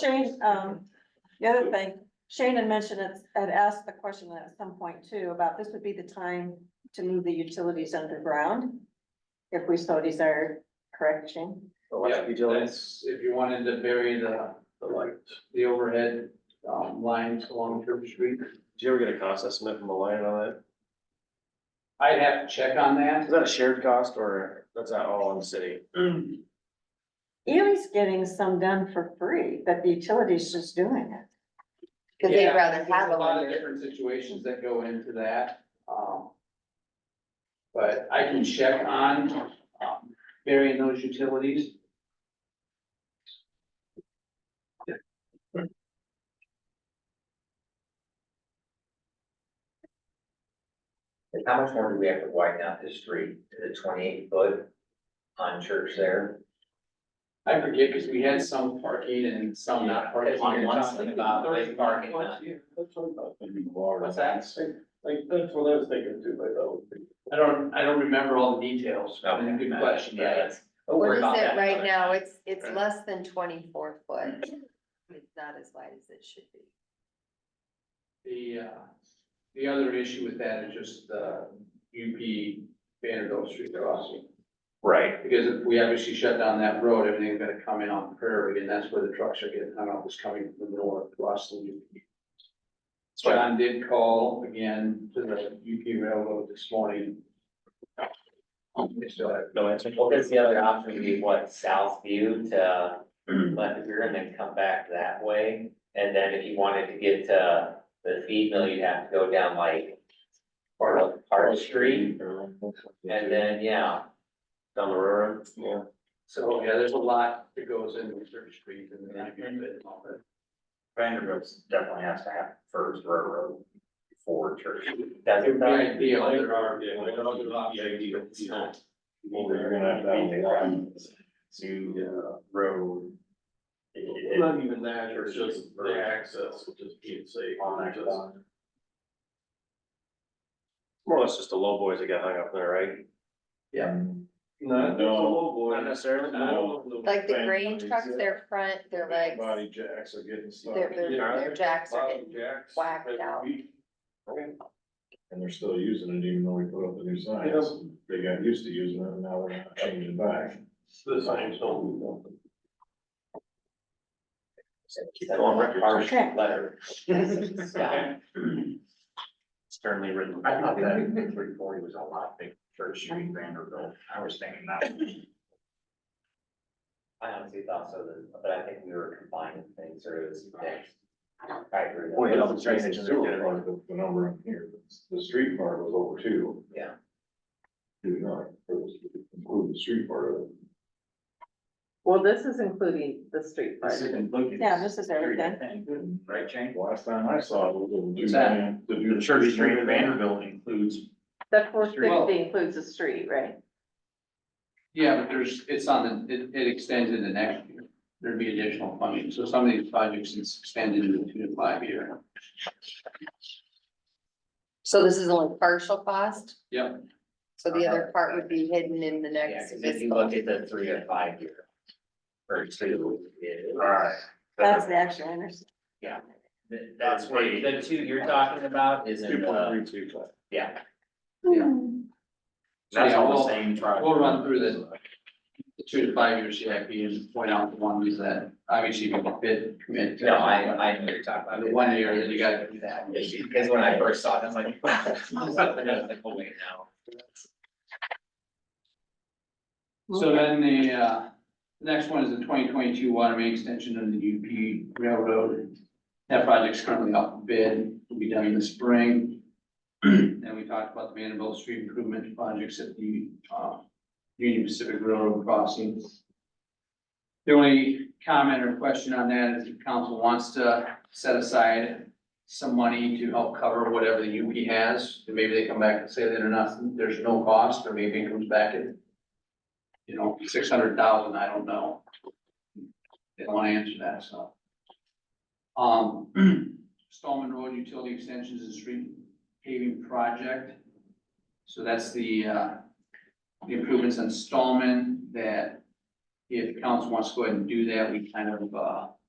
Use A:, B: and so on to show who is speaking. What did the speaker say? A: Shane, um, the other thing, Shane had mentioned it, had asked the question at some point too, about this would be the time to move the utilities underground. If we so desire, correct, Shane?
B: Yeah,
C: Electric utilities,
B: that's If you wanted to bury the, the light, the overhead, um, lines along Church Street.
C: did you ever get a cost estimate from the line on that?
B: I'd have to check on that.
C: Is that a shared cost or that's not all on the city?
A: Ely's getting some done for free, but the utility's just doing it.
D: Cause they'd
B: Yeah,
D: rather have
B: There's a
D: them
B: lot of
D: under.
B: different situations that go into that, um. But I can check on, um, burying those utilities.
E: And How much more do we have to widen out this street to the twenty-eight foot on church there?
B: I forget, cause we had some parking and some not parking.
E: On one side, about
B: There's
E: big parking lot.
B: What's that?
F: Like, that's what I was thinking too, like, oh.
B: I don't, I don't remember all the details, but it's a good question, yeah, that's-
E: But
D: What
E: we're
D: is
E: about
D: it
E: that
D: right
E: other
D: now?
E: side.
D: It's, it's less than twenty-four foot. It's not as wide as it should be.
B: The, uh, the other issue with that is just the UP Vanderbilt Street crossing.
C: Right.
B: Because if we obviously shut down that road, everything's gonna come in on Prairie, and that's where the trucks are getting hung up, is coming from the north, across the UP. John did call again to the UP Railroad this morning. They still have-
C: No answer?
E: Well, because the other option would be what, South View to Lefferer and then come back that way? And then if you wanted to get to the feed mill, you'd have to go down like Park, Park Street. And then, yeah,
C: Down the road, yeah.
B: So, yeah, there's a lot that goes into Church Street and then I get it all that.
G: Vanderbilt definitely has to have first railroad before church.
E: that's.
B: It would be ideal.
F: There are, yeah,
G: like, other options, but it's not-
C: You're gonna have that one.
G: New road. It- it-
F: Not even that, it's just the access, which is being safe.
G: on that
F: just-
G: one.
C: More or less just the low boys that got hung up there, right?
F: Not, it's a low boy.
C: Not necessarily.
F: No.
D: Like the grain trucks,
F: Families,
D: their front, their
G: Big
D: legs,
G: Body jacks are getting stuck.
D: their, their,
F: Yeah.
D: their jacks are
F: Bottom
D: getting,
F: jacks
D: whacked
F: every
D: out.
F: week.
G: And they're still using it even though we put up the new
F: Yeah.
G: signs. They got used to using it and now they're not changing back.
F: It's The same, so.
C: On record.
E: Park
A: Okay.
E: Letter. Yeah.
G: Sternly written.
H: I thought that three forty was a lot big Church Street Vanderbilt. I was thinking that.
E: I honestly thought so, but I think we were combining things or it was mixed. I agree.
C: Well, you know, it's right
G: It's
C: next
G: just
C: to
G: The
C: the
G: sewer
C: road.
G: part, the- the number in here, the street part was over two.
E: Yeah.
G: Two nine, it was included the street part of it.
I: Well, this is including the street part.
A: Yeah, this is everything.
F: Mm-hmm.
H: Right, Jane?
G: Last time I saw it, it was two
B: What's that?
G: million to do.
H: The Church Street Vanderbilt includes
I: That four
B: Well-
I: sixty includes the street, right?
B: Yeah, but there's, it's on, the it, it extends into next year. There'd be additional funding. So some of these projects is extended into two to five year.
D: So this is only partial cost,
B: Yep,
D: so the other part would be hidden in the
E: Yeah,
D: next
E: because if you
D: fiscal.
E: look at the three or five year. Or two. it-
G: Alright.
A: That's the actual intersection.
E: th- That's where you- the two you're talking about is in
G: Two
E: the,
G: point three two five.
E: yeah.
B: yeah.
A: Hmm.
H: That's
B: Yeah,
H: all
B: we'll-
H: the same project.
B: We'll run through the, the two to five year CIP and point out the ones that obviously you can fit, commit. to.
E: No, I, I know what you're talking about.
B: The one year that you gotta do that.
E: Because when I first saw it, I was like, wow. I was like, oh, wait, no.
B: So then the, uh, next one is the twenty twenty-two water main extension of the UP Railroad. That project's currently up for bid, will be done in the spring. And we talked about the Vanderbilt Street improvement projects at the, uh, Union Pacific Railroad crossings. The only comment or question on that is if council wants to set aside some money to help cover whatever the UP has, and maybe they come back and say that or not, there's no cost, or maybe it comes back at you know, six hundred thousand, I don't know. They don't wanna answer that, so. Um, Stallman Road Utility Extensions and Street Paving Project. So that's the, uh, the improvements on Stallman that if council wants to go ahead and do that, we kind of, uh,